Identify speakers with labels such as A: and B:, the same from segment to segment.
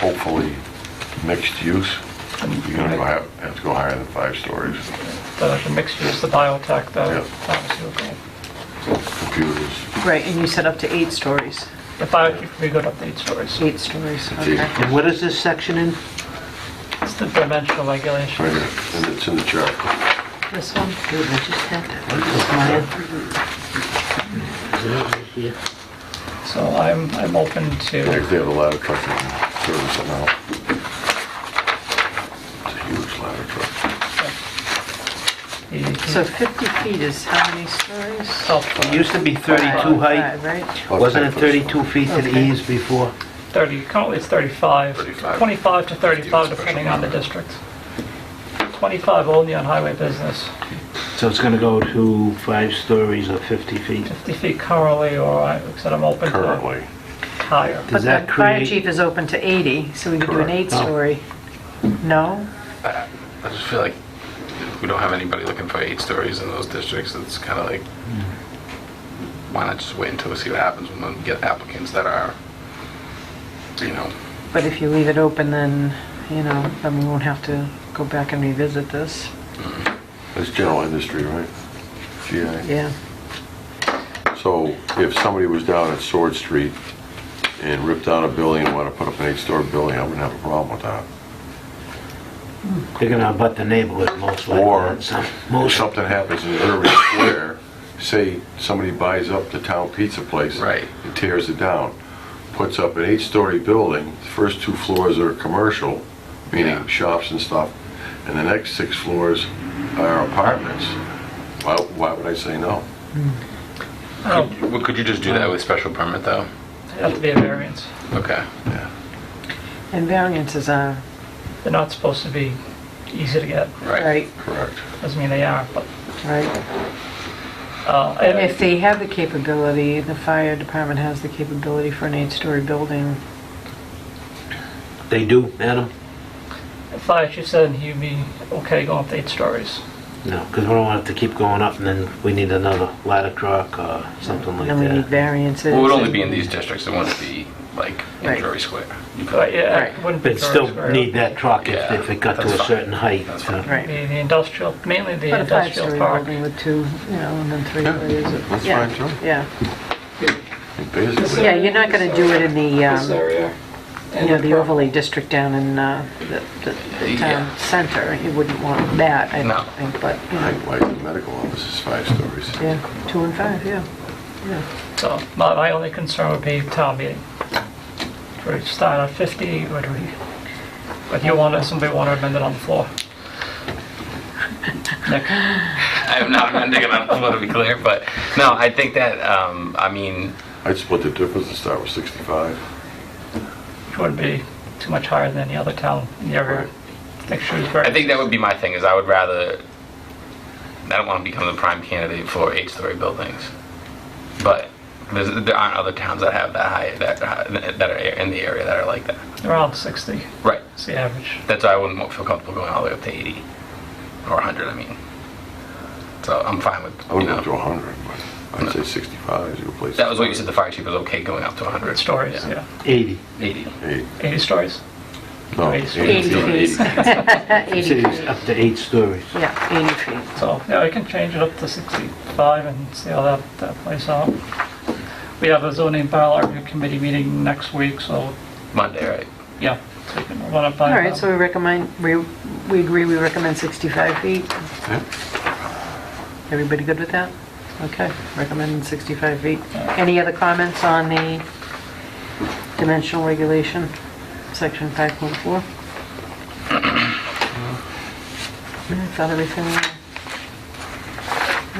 A: hopefully mixed use, you're gonna go have, have to go higher than five stories.
B: The the mixed use, the biotech,
A: Yeah.
B: that, that was your goal.
A: Computers,
C: Right, and you said up to eight stories,
B: The biotech, we got up to eight stories.
C: eight stories,
A: Eight.
C: okay.
D: And what is this section in?
B: It's the dimensional regulation.
A: right here, and it's in the chart.
C: This one?
D: Dude, I just had that. This line.
B: So I'm, I'm open
A: They
B: to,
A: they have a ladder truck and service it now. It's a huge ladder truck.
B: the-
C: So 50 feet is how many stories?
B: oh,
D: It used to be 32 height,
C: Five, right?
D: wasn't it 32 feet to the
C: Okay.
D: eaves before?
B: 30, currently it's 35,
A: 35.
B: 25 to 35
A: Special
B: depending on the
A: permit.
B: district. 25 only on highway business,
D: So it's gonna go to five stories or 50 feet?
B: 50 feet currently, or I said I'm open to
A: Currently,
B: higher.
D: Does
C: But
D: that
C: the fire
D: create-
C: chief is open to 80, so we could do an
A: Correct.
C: eight-story. No?
E: I just feel like if we don't have anybody looking for eight stories in those districts, it's kind of like, why not just wait until we see what happens when we get applicants that are, you know,
C: But if you leave it open, then, you know, then we won't have to go back and revisit this.
A: that's general industry, right? GI.
C: Yeah.
A: So if somebody was down at Sword Street and ripped down a building and wanted to put up an eight-story building, I wouldn't have a problem with that.
D: They're gonna abut the neighborhood most likely.
A: Or-
D: on some-
A: If
D: Most,
A: something happens in Irving Square, say somebody buys up the town pizza place.
E: Right.
A: And tears it down, puts up an eight-story building, the first two floors are commercial, meaning
E: Yeah.
A: shops and stuff, and the next six floors are apartments. Why, why would I say no?
B: Oh,
E: Well, could you just do that with special permit though?
B: it'd have to be a variance.
E: Okay.
A: Yeah.
C: And variances are,
B: They're not supposed to be easy to get,
C: right,
A: Correct.
B: doesn't mean they are, but,
C: right.
B: uh,
C: And if
B: I-
C: they have the capability, the fire department has the capability for an eight-story building.
D: they do, Adam?
B: if I actually said he'd be okay going up to eight stories.
D: No, because we don't want it to keep going up and then we need another ladder truck or something like
C: And then we need
D: that.
C: variances.
E: Well, it would only be in these districts, it wouldn't be like in
C: Right.
E: Drury Square.
B: But yeah, it
C: Right.
B: wouldn't be
D: But still
B: very square.
D: need that truck if
E: Yeah,
D: if it got to
E: that's
D: a
E: fine.
D: certain height.
E: That's
D: so-
E: fine.
B: The
C: Right.
B: the industrial, mainly the
C: But a
B: industrial
C: five-story
B: park.
C: building with two, you know, and then three
A: Yeah,
C: areas. of-
A: that's
C: Yeah,
A: fine, too.
C: Yeah,
A: Basically,
C: yeah, you're not gonna do it in the,
F: this
C: um,
F: area.
C: you know, the overlay district down in uh, the the- the town
E: Yeah.
C: center. You wouldn't want that, I
E: No.
C: don't think, but, you
A: I
C: know,
A: think like the medical office is five stories.
C: yeah, two and five, yeah. yeah.
B: So my, my only concern would be town meeting. Would we start at 50, would we, but you want, somebody want to amend it on the floor? Nick?
E: I'm not amending it, I want to be clear, but no, I think that, um, I mean,
A: I'd split the difference and start with 65.
B: It wouldn't be too much higher than any other town in the area. I think Shrewsbury.
E: I think that would be my thing, is I would rather, I don't want to become the prime candidate for eight-story buildings. But there's, there aren't other towns that have that high, that, high- that are in the area that are like that.
B: Around 60
E: Right.
B: is the average.
E: That's why I wouldn't feel comfortable going all the way up to 80, or 100, I mean. So I'm fine with,
A: I
E: you
A: wouldn't go to
E: know,
A: 100, but I'd say 65 is a good place.
E: that was what you said, the fire chief was okay going up to 100.
B: Stories, yeah.
D: 80.
E: 80.
A: Eight.
B: 80 stories?
A: No,
B: Eight.
A: 80.
C: Eighty feet.
D: It
C: Eighty
D: says
C: feet,
D: up to eight stories.
C: yeah, eighty feet.
B: So, yeah, we can change it up to 65 and see how that, that plays out. We have a zoning bylaw review committee meeting next week, so,
E: Monday, right?
B: yeah. so we can run it by
C: All right,
B: them.
C: so we recommend, we, we agree, we recommend 65 feet.
A: Yeah.
C: Everybody good with that? Okay, recommend 65 feet. Any other comments on the dimensional regulation, section 5.4? I thought everything,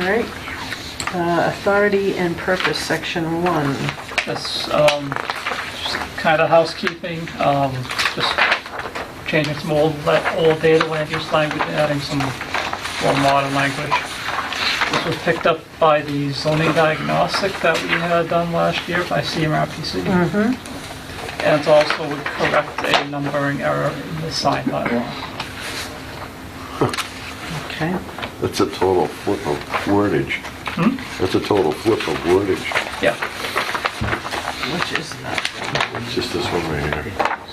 C: all right. Uh, Authority and purpose, section 1.
B: This, um, kind of housekeeping, um, just changing some old, la- old data land use language, adding some more modern language. This was picked up by the zoning diagnostic that we had done last year by CMRPC. And it also would correct a numbering error in the sign bylaw.
C: Okay.
A: That's a total flip of wordage. That's a total flip of wordage.
B: Yeah,
C: Which is that?
A: It's just this one right here.